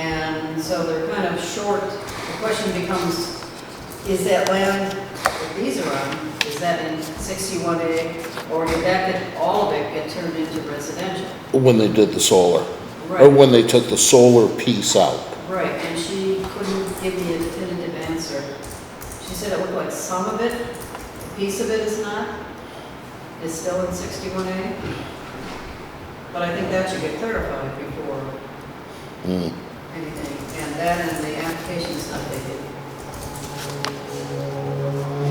And so they're kind of short. The question becomes, is that land that these are on, is that in 61A? Or did that get, all of it get turned into residential? when they did the solar, or Right, when they took the solar piece out. right, and she couldn't give me a definitive answer. She said it looked like some of it, a piece of it is not, is still in 61A. But I think that should get clarified before Mm. anything, and that and the application is not dated.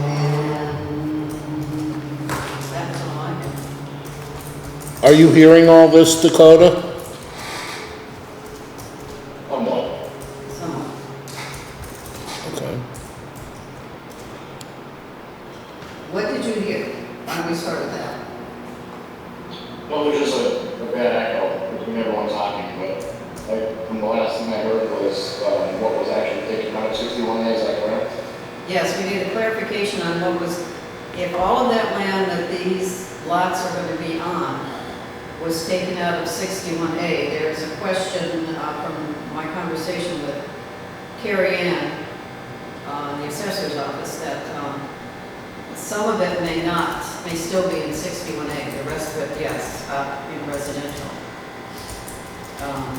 And that's all I have. Are you hearing all this, Dakota? Oh, no. Someone, Okay. what did you hear? Why don't we start with that? Well, there's just a, a bad echo between everyone talking, but like, from the last thing I heard was, um, what was actually taken out of sixty-one A, is that correct? Yes, we need a clarification on what was, if all of that land that these lots are going to be on was taken out of 61A, there's a question uh, from my conversation with Carrie Ann, uh, the assessor's office, that um, Some of it may not, may still be in 61A, the rest of it, yes, uh, in residential. Um,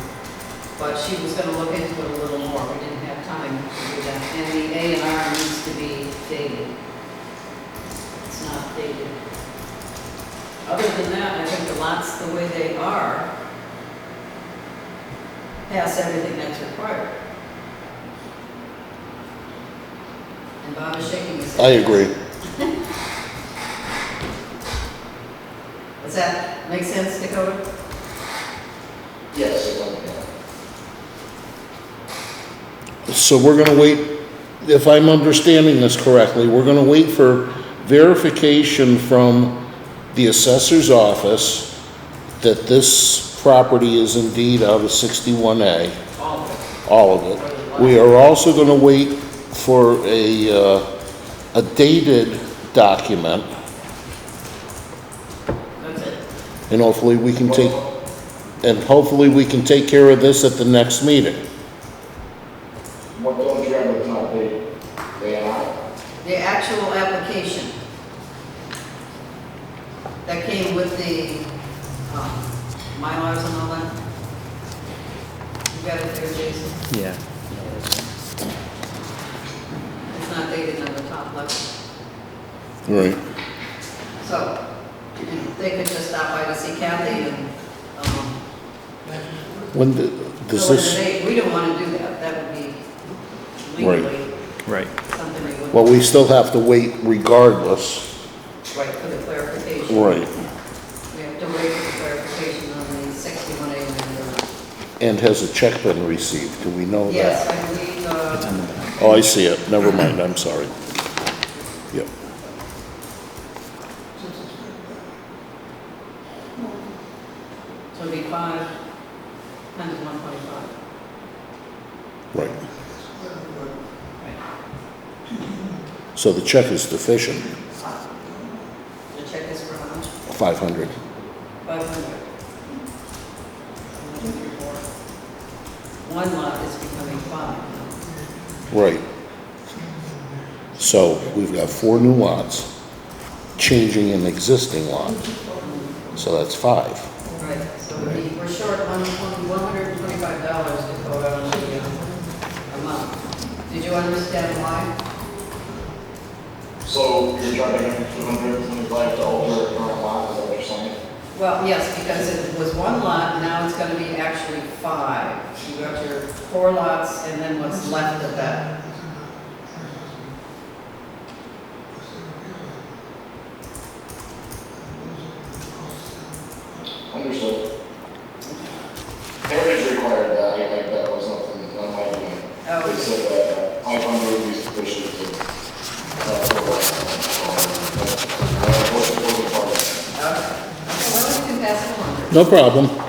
But she was going to look into it a little more, we didn't have time to do that. And the A and R needs to be dated. It's not dated. Other than that, I think the lots, the way they are, pass everything that's required. And Bob is shaking his head. I agree. Does that make sense, Dakota? Yes, it was, yeah. So we're gonna wait, if I'm understanding this correctly, we're gonna wait for verification from the assessor's office that this property is indeed out of sixty-one A, All of it. all of it. We are also gonna wait for a, uh, a dated document, That's it. and hopefully we can take, and hopefully we can take care of this at the next meeting. What don't you remember is not the, the A and R? The actual application that came with the, um, Mylars and all that. You got it there, Jason? Yeah. It's not dated on the top left. Right. So, they could just stop by to see Kathy and, um, When, the- does fill in the this, date. We don't want to do that. That would be Right. legally Right. something we wouldn't. well, we still have to wait regardless. Right, for the clarification. Right. We have to wait for clarification on the 61A amendment. And has a check been received? Do we know Oh, that? Yes, I believe, uh, Oh, I see it. Never mind, I'm sorry. Yep. so it'll be five times 1.5. Right. So the check is deficient, The check is for how much? 500. 500. One lot is becoming five. Right. So we've got four new lots, changing an existing lot. So that's five. Right, so we need- we're short on $125 to go out on the uh, amount. Did you understand why? So you're trying to get two hundred and twenty-five to alter the current lot, is that what you're saying? Well, yes, because it was one lot, now it's going to be actually five. You got your four lots and then what's left of that. Understood. Heritage required that, I like, that was nothing, not my doing. Oh. They said that five hundred would be sufficient to, uh, for, uh, uh, what's the building part? Okay, well, we can pass it along. No problem. uh,